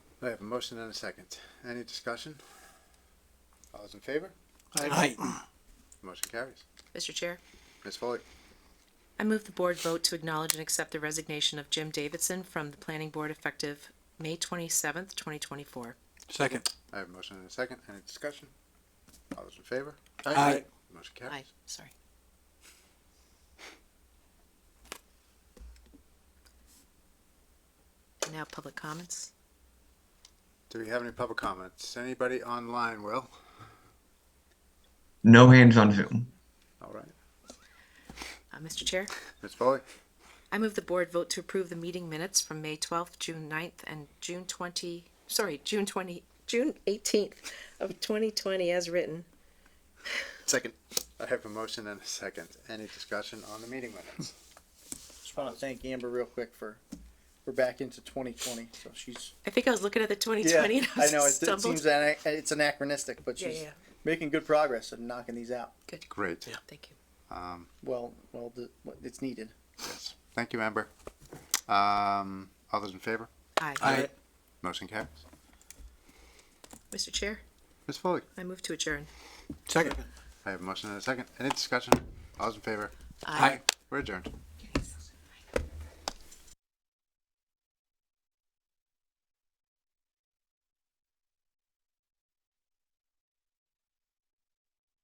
I have a motion and a second. Any discussion? All those in favor? Aye. Motion carries. Mr. Chair, Ms. Foley, I move the board vote to acknowledge and accept the resignation of Jim Davidson from the planning board effective May twenty-seventh, twenty twenty-four. Second. I have a motion and a second. Any discussion? All those in favor? Aye. Motion Aye, carries. sorry. And Now public comments. Do we have any public comments? Anybody online, Will? No hands on Zoom. All right. Uh, Mr. Chair, Ms. Foley, I move the board vote to approve the meeting minutes from May twelfth, June 9th, and June twenty, sorry, June twenty, June eighteenth of twenty twenty as written. Second. I have a motion and a second. Any discussion on the meeting minutes? Just want to thank Amber real quick for, we're back into 2020, so she's. I think I was looking at the twenty Yeah, twenty and I I know, it- it stumbled. seems, ana- it's anachronistic, but Yeah, she's yeah. making good progress and knocking these out. Great. Thank you. Um, Well, well, the- it's needed. yes. Thank you, Amber. Um, all those in favor? Aye. Aye. Motion carries. Mr. Chair, Ms. Foley, I move to adjourn. Second. I have a motion and a second. Any discussion? All those in favor? Aye. We're adjourned.